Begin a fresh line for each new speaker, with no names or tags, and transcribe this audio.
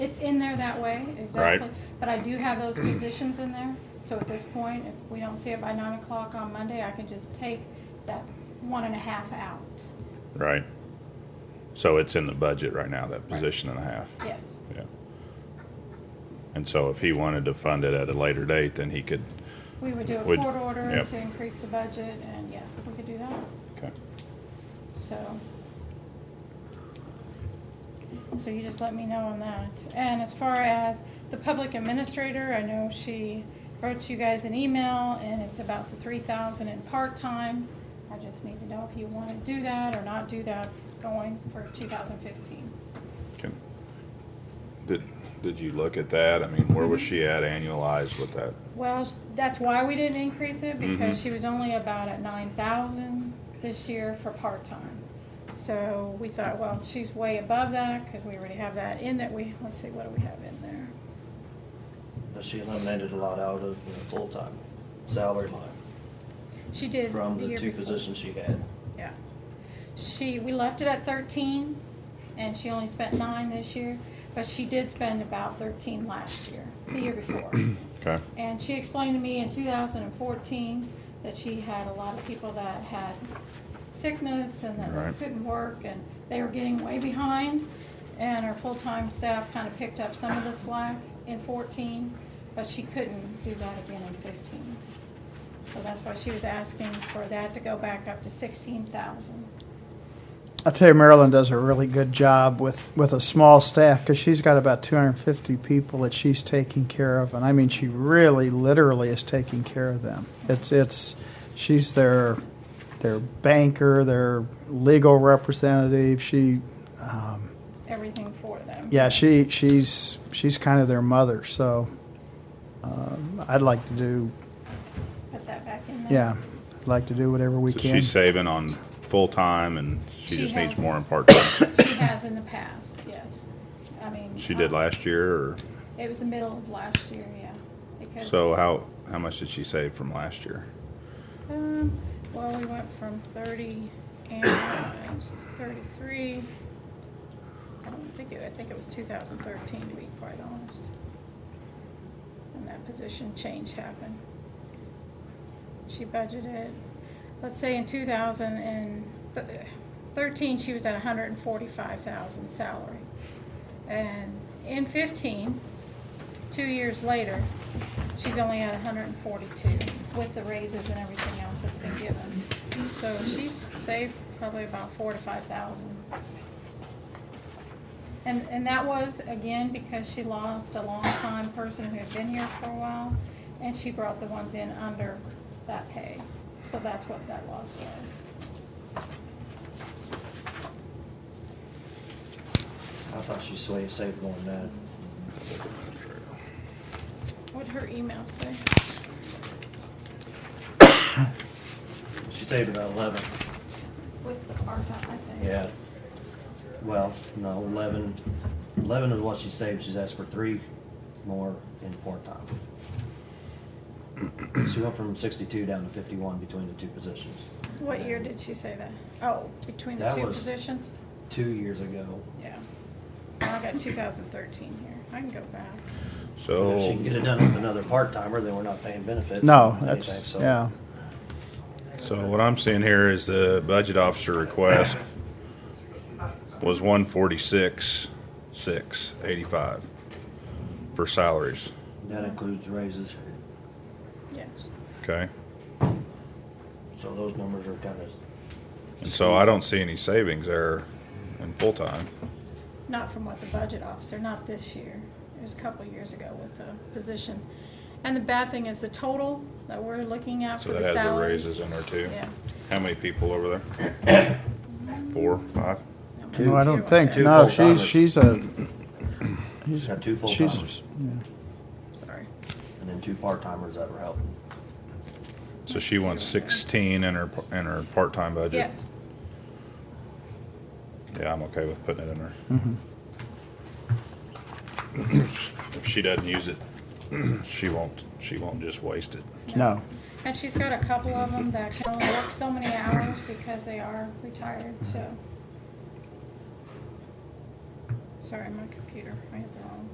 It's in there that way,
Right.
exactly. But I do have those positions in there, so at this point, if we don't see it by nine o'clock on Monday, I can just take that one and a half out.
Right. So it's in the budget right now, that position and a half.
Yes,
Yeah. And so if he wanted to fund it at a later date, then he could,
we would do a
Would-
court order
yep.
to increase the budget, and yeah, we could do that,
okay.
so. So you just let me know on that. And as far as the public administrator, I know she wrote you guys an email, and it's about the three thousand in part-time. I just need to know if you want to do that or not do that going for two thousand fifteen.
Can- Did, did you look at that? I mean, where was
Mm-hmm.
she at annualized with that?
Well, s- that's why we didn't increase it, because
Mhm.
she was only about at nine thousand this year for part-time. So we thought, well, she's way above that, because we already have that in that we, let's see, what do we have in there?
But she eliminated a lot out of the full-time salary line
She did
from
the
the
year
two
before.
positions she had.
Yeah. She, we left it at thirteen, and she only spent nine this year, but she did spend about thirteen last year, the year before.
Okay,
And she explained to me in 2014 that she had a lot of people that had sickness and that
Right.
they couldn't work and they were getting way behind. And her full-time staff kind of picked up some of the slack in 14, but she couldn't do that again in 15. So that's why she was asking for that to go back up to 16,000.
I tell you, Marilyn does a really good job with, with a small staff because she's got about 250 people that she's taking care of, and I mean, she really, literally is taking care of them. It's it's she's their their banker, their legal representative. She, um,
Everything for them.
yeah, she she's she's kind of their mother. So um, I'd like to do
Put that back in there.
yeah, I'd like to do whatever we
so
can.
she's saving on full-time and
She
she just needs
has-
more in part-time.
She has in the past, yes. I mean.
She did
um,
last year or,
It was the middle of last year, yeah. Because,
so how, how much did she save from last year?
um, well, we went from thirty and thirty-three. I don't think it, I think it was two thousand thirteen, to be quite honest. And that position change happened. She budgeted, let's say in two thousand and thirteen, she was at hundred and forty-five thousand salary. And in fifteen, two years later, she's only at hundred and forty-two with the raises and everything else that's been given. So she's saved probably about four to five thousand. And, and that was, again, because she lost a longtime person who had been here for a while, and she brought the ones in under that pay. So that's what that loss was.
I thought she swa- saved more than
What'd her email say?
that. She saved about eleven,
With the part-time, I think.
yeah. Well, no, eleven, eleven is what she saved, she's asked for three more in part-time. She went from sixty-two down to fifty-one between the two positions.
What year did she say that? Oh, between the
That
two
was-
positions?
Two years ago.
Yeah. I got 2013 here. I can go back.
So.
If she can get it done with another part-timer, then we're not paying benefits.
Oh. no,
and anything,
that's
so-
yeah.
So what I'm seeing here is the budget officer request was one forty-six, six, eighty-five for salaries,
That includes raises.
Yes.
okay?
So those numbers are kind of,
And so I don't see any savings there in full-time.
Not from what the budget officer, not this year. It was a couple of years ago with the position. And the bad thing is the total that we're looking at
So
for
that
the
has the
salaries.
raises in there too.
Yeah.
How many people over there? Four, five?
I'm
Two.
No, I don't
not
think.
sure
Two
about
No,
full-timers.
she's she's a
she's got two full-timers
she's. Yeah.
that. Sorry.
and then two part-timers that were helping.
So she wants sixteen in her, in her part-time budget?
Yes.
Yeah, I'm okay with putting it in there.
Mhm.
If she doesn't use it, she won't, she won't just waste it.
No.
And she's got a couple of them that can only work so many hours because they are retired, so. Sorry, my computer, I have the wrong.